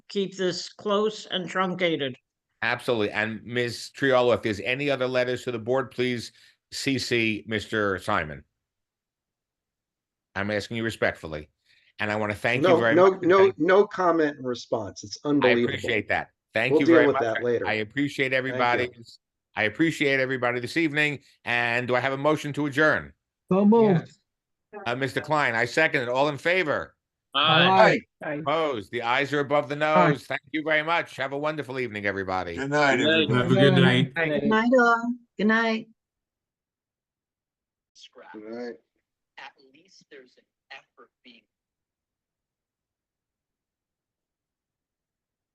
keep this close and truncated. Absolutely. And Ms. Triolo, if there's any other letters to the board, please CC Mr. Simon. I'm asking you respectfully, and I want to thank you No, very no, much. no, no comment and response. It's I unbelievable. appreciate that. Thank We'll you deal very with much. that I- later. I appreciate everybody. I appreciate everybody this evening. And do I have a motion to adjourn? So moved. Uh, Mr. Klein, I second it. All in favor? Aye. Opposed? The eyes are above the nose. Thank you very much. Have a wonderful evening, everybody. Good night, everybody. Have a good night. Good night, all. Good night. scrap. Right. At least there's an effort being